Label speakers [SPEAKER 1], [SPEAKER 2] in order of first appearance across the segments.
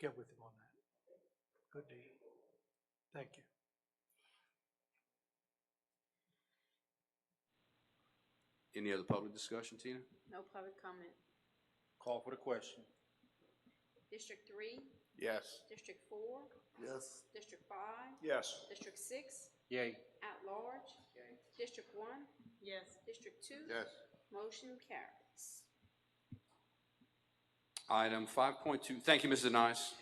[SPEAKER 1] get with him on that. Good deal. Thank you.
[SPEAKER 2] Any other public discussion, Tina?
[SPEAKER 3] No public comment.
[SPEAKER 4] Call for the question.
[SPEAKER 3] District three,
[SPEAKER 4] Yes.
[SPEAKER 3] District four,
[SPEAKER 4] Yes.
[SPEAKER 3] District five,
[SPEAKER 4] Yes.
[SPEAKER 3] District six,
[SPEAKER 4] Yay.
[SPEAKER 3] at large. District one,
[SPEAKER 5] Yes.
[SPEAKER 3] District two.
[SPEAKER 4] Yes.
[SPEAKER 3] Motion carries.
[SPEAKER 2] Item five point two, thank you, Mrs. Nice.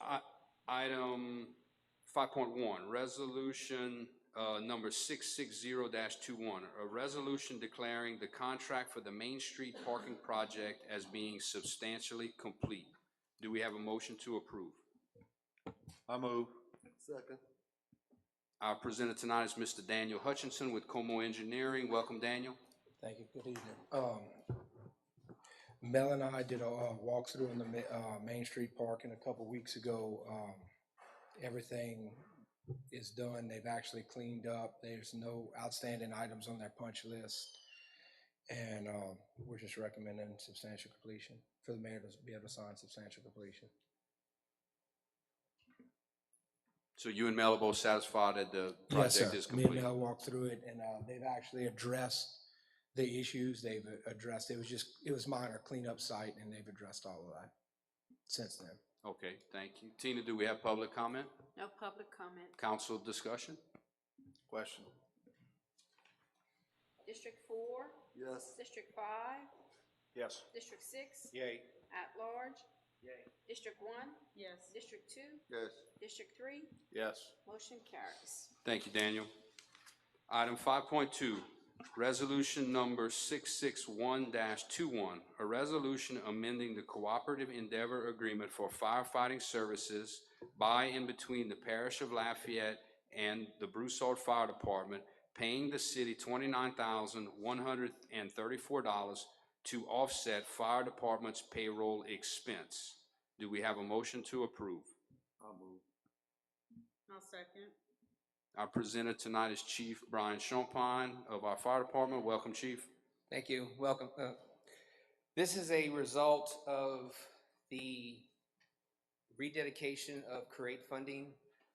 [SPEAKER 2] I, item five point one, resolution, uh, number six six zero 21 a resolution declaring the contract for the Main Street parking project as being substantially complete. Do we have a motion to approve?
[SPEAKER 4] I move.
[SPEAKER 2] Our presenter tonight is Mr. Daniel Hutchinson with Como Engineering. Welcome, Daniel.
[SPEAKER 6] Thank you, good evening. Um, Mel and I did a uh, walkthrough in the Ma- uh, Main Street Parking a couple weeks ago. Um, everything is done, they've actually cleaned up, there's no outstanding items on their punch list. And, um, we're just recommending substantial completion for the mayor to be able to sign substantial completion.
[SPEAKER 2] So you and Mel are both satisfied that the
[SPEAKER 6] Yes,
[SPEAKER 2] project is
[SPEAKER 6] sir. Me and
[SPEAKER 2] complete?
[SPEAKER 6] Mel walked through it, and uh, they've actually addressed the issues they've addressed. It was just, it was minor cleanup site, and they've addressed all of that since then.
[SPEAKER 2] Okay, thank you. Tina, do we have public comment?
[SPEAKER 3] No public comment.
[SPEAKER 2] Council discussion?
[SPEAKER 4] Question.
[SPEAKER 3] District four,
[SPEAKER 4] Yes.
[SPEAKER 3] District five,
[SPEAKER 4] Yes.
[SPEAKER 3] District six,
[SPEAKER 4] Yay.
[SPEAKER 3] at large.
[SPEAKER 4] Yay.
[SPEAKER 3] District one,
[SPEAKER 5] Yes.
[SPEAKER 3] District two,
[SPEAKER 4] Yes.
[SPEAKER 3] District three,
[SPEAKER 4] Yes.
[SPEAKER 3] motion carries.
[SPEAKER 2] Thank you, Daniel. Item five point two, resolution number six six one 21 a resolution amending the cooperative endeavor agreement for firefighting services by and between the parish of Lafayette and the Broussard Fire Department, paying the city twenty-nine thousand one hundred and thirty-four dollars to offset fire department's payroll expense. Do we have a motion to approve?
[SPEAKER 5] I'll second.
[SPEAKER 2] Our presenter tonight is Chief Brian Champagne of our fire department. Welcome, chief.
[SPEAKER 7] Thank you, welcome. Uh, This is a result of the rededication of create funding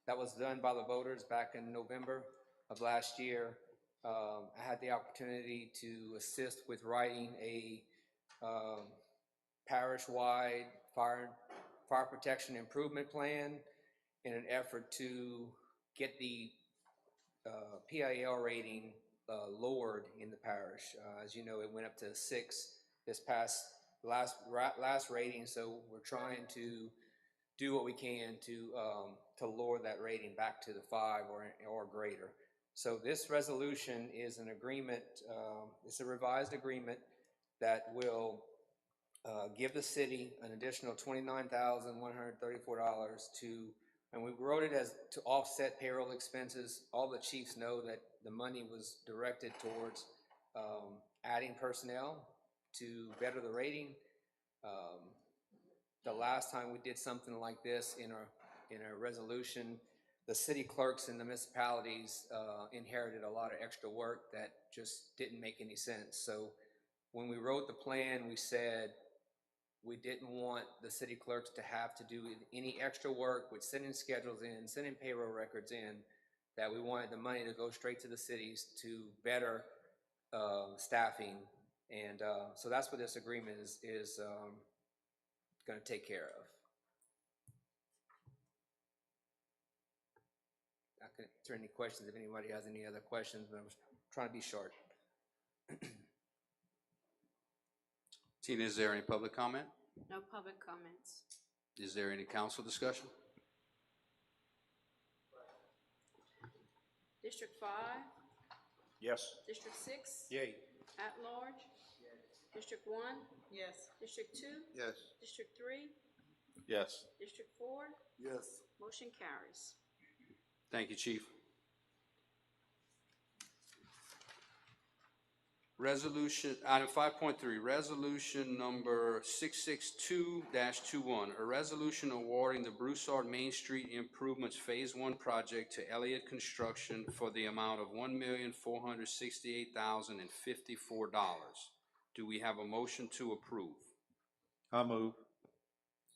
[SPEAKER 7] that was done by the voters back in November of last year. Um, I had the opportunity to assist with writing a um, parish-wide fire, fire protection improvement plan in an effort to get the uh, PIL rating uh, lowered in the parish. Uh, As you know, it went up to six this past, last, ra- last rating, so we're trying to do what we can to, um, to lower that rating back to the five or, or greater. So this resolution is an agreement, um, it's a revised agreement that will uh, give the city an additional twenty-nine thousand, one hundred thirty-four dollars to and we wrote it as to offset payroll expenses. All the chiefs know that the money was directed towards um, adding personnel to better the rating. Um, The last time we did something like this in our, in our resolution, the city clerks and the municipalities uh, inherited a lot of extra work that just didn't make any sense. So when we wrote the plan, we said, we didn't want the city clerks to have to do any extra work with sending schedules in, sending payroll records in, that we wanted the money to go straight to the cities to better um, staffing. And uh, so that's what this agreement is, is going to take care of. I can answer any questions if anybody has any other questions, but I'm trying to be short.
[SPEAKER 2] Tina, is there any public comment?
[SPEAKER 3] No public comments.
[SPEAKER 2] Is there any council discussion?
[SPEAKER 3] District five,
[SPEAKER 4] Yes.
[SPEAKER 3] District six,
[SPEAKER 4] Yay.
[SPEAKER 3] at large. District one,
[SPEAKER 5] Yes.
[SPEAKER 3] District two,
[SPEAKER 4] Yes.
[SPEAKER 3] District three,
[SPEAKER 4] Yes.
[SPEAKER 3] District four,
[SPEAKER 4] Yes.
[SPEAKER 3] motion carries.
[SPEAKER 2] Thank you, chief. Resolution, item five point three, resolution number six six two 21 a resolution awarding the Broussard Main Street Improvements Phase One project to Elliott Construction for the amount of one million four hundred sixty-eight thousand and fifty-four dollars. Do we have a motion to approve?
[SPEAKER 4] I move.